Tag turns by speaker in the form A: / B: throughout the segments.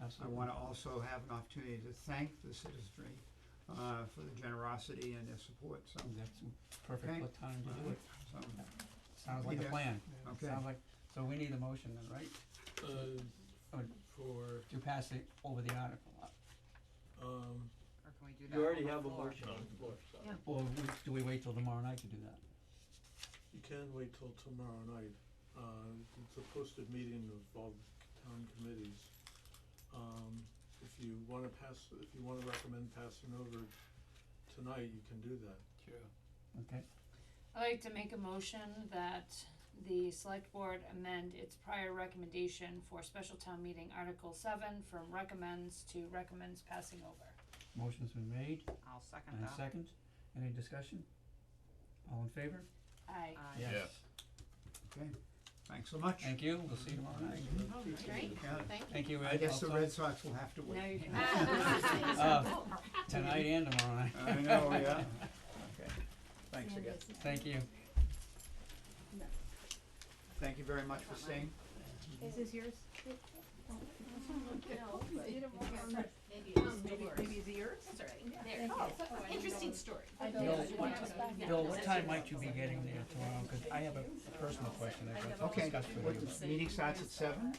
A: I
B: Absolutely.
A: want to also have an opportunity to thank the citizenry uh, for the generosity and their support, so,
B: That's
A: Okay.
B: perfect what time to do it.
A: so,
B: Sounds like a
A: Yeah.
B: plan.
A: Okay.
B: Sounds like, so we need a motion then, right,
C: Uh,
B: Oh.
C: for,
B: to pass it over the article. Uh,
C: um,
D: Or can we do that
E: You already
D: on
E: have
D: the
E: a
D: floor?
E: motion on the floor, so.
D: Yeah.
B: Or we- do we wait till tomorrow night to do that?
C: you can wait till tomorrow night. Uh, it's a posted meeting of all the town committees. Um, if you wanna pass, if you wanna recommend passing over tonight, you can do that.
B: Sure. Okay,
F: I'd like to make a motion that the select board amend its prior recommendation for special town meeting article seven from recommends to recommends passing over.
B: motion's been made,
D: I'll second
B: and a
D: that.
B: second, any discussion? All in favor?
F: Aye.
D: Aye.
B: Yes.
A: okay, thanks so much.
B: Thank you, we'll see you tomorrow night.
A: Great.
F: Thank you.
B: Thank you, Ed.
A: I guess the
B: also.
A: Red Sox will have to
F: Now
A: wait.
F: you can.
B: Uh, Tonight and tomorrow night.
A: I know, yeah. Okay, thanks again.
B: Thank you.
A: Thank you very much for staying.
G: Is this yours?
E: Maybe
G: Maybe, maybe it's yours?
E: That's all right.
G: There.
F: Oh,
E: Interesting story.
B: Bill,
G: Yeah.
B: what,
G: Yeah.
B: Bill, what time might you be getting there tomorrow? Cause I have a personal question I've got to
A: Okay,
B: discuss
A: what,
B: with you.
A: the meeting starts at seven?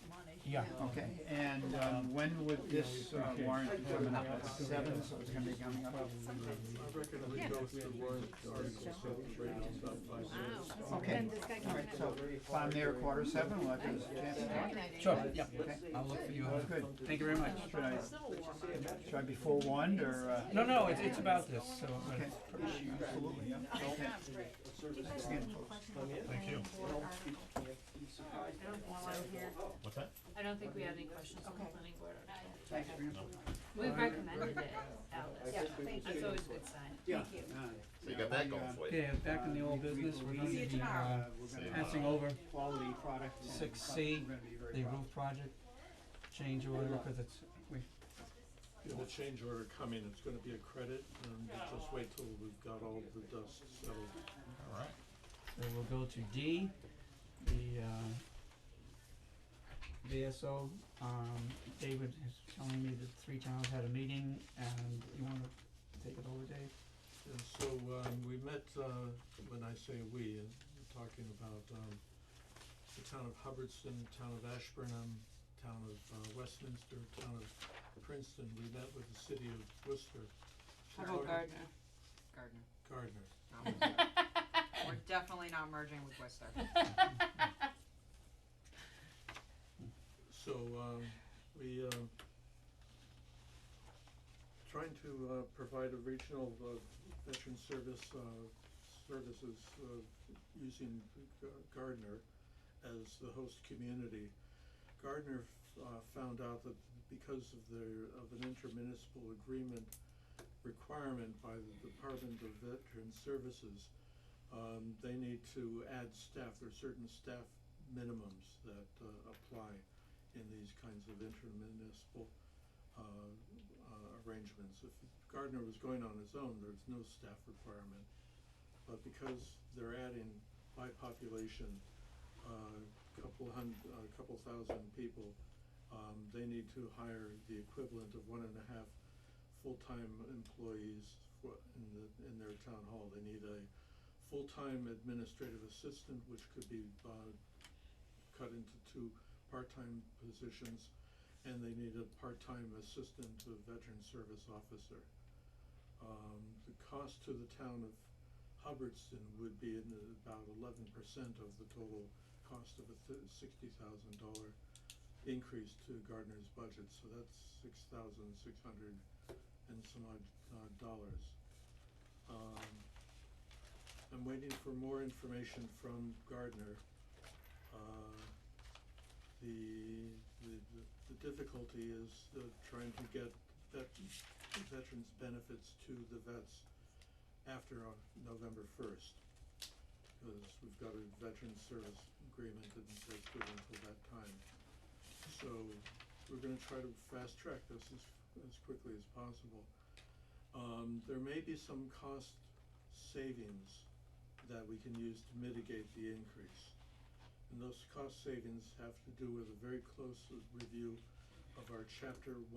B: Yeah,
A: Okay, and um, when would this uh, warrant be coming up? At seven, so it's gonna be coming up at
C: I reckon we go through warrant articles, so we rate it up by zero.
A: Okay, all right, so if I'm there at quarter seven, we'll have to, yeah,
B: sure, yeah,
A: Okay.
B: I'll look for you.
A: good.
B: Thank you very much.
A: Should I, should I be forewarned or? uh,
B: No, no, it's, it's about this, so uh, I'm gonna
A: Okay, absolutely, yeah, okay. Again, folks.
G: Thank you.
H: What's that?
F: I don't think we had any questions on the planning board article.
A: Thanks for your input.
F: We've recommended it, Alice. That's always a good sign.
H: So you got that going for you.
B: Okay,
A: Uh,
B: back in the old business, we're gonna
A: See you
B: be, uh,
A: Uh, we're gonna-
B: passing over
A: Quality product. and
B: Six
A: pro-
B: C,
A: we're gonna be very
B: the
A: proud.
B: roof project change order, cause it's, we,
C: Yeah, the change order coming, it's gonna be a credit, and you just wait till we've got all the dust settled.
H: All right.
B: so we'll go to D, the, uh, VSO, um, David is telling me that three towns had a meeting, and you wanna take it over, Dave?
C: And so, um, we met, uh, when I say we, uh, we're talking about, um, the town of Hubbardston, town of Ashburnham, town of uh, Westminster, town of Princeton, we met with the city of Worcester.
F: How about
C: Gardner?
F: Gardner?
D: Gardner.
C: Gardner.
D: We're definitely not merging with Worcester.
C: So, um, we, um, trying to, uh, provide a regional, uh, veteran service, uh, services, uh, using G- Gardner as the host community. Gardner, f- uh, found out that because of their, of an intermunicipal agreement requirement by the Department of Veteran Services, um, they need to add staff, there are certain staff minimums that, uh, apply in these kinds of intermunicipal uh, uh, arrangements. If Gardner was going on his own, there's no staff requirement. But because they're adding by population, uh, couple hun- a couple thousand people, um, they need to hire the equivalent of one and a half full-time employees for, in the, in their town hall. They need a full-time administrative assistant, which could be, uh, cut into two part-time positions, and they need a part-time assistant to a veteran service officer. Um, the cost to the town of Hubbardston would be in the, about eleven percent of the total cost of a th- sixty thousand dollar increase to Gardner's budget, so that's six thousand six hundred and some odd, uh, dollars. Um, I'm waiting for more information from Gardner. Uh, the, the, the- the difficulty is uh, trying to get vet, veterans' benefits to the vets after uh, November first. Because we've got a veteran service agreement that says good until that time. So we're gonna try to fast track this as, as quickly as possible. Um, there may be some cost savings that we can use to mitigate the increase. And those cost savings have to do with a very close review of our chapter one.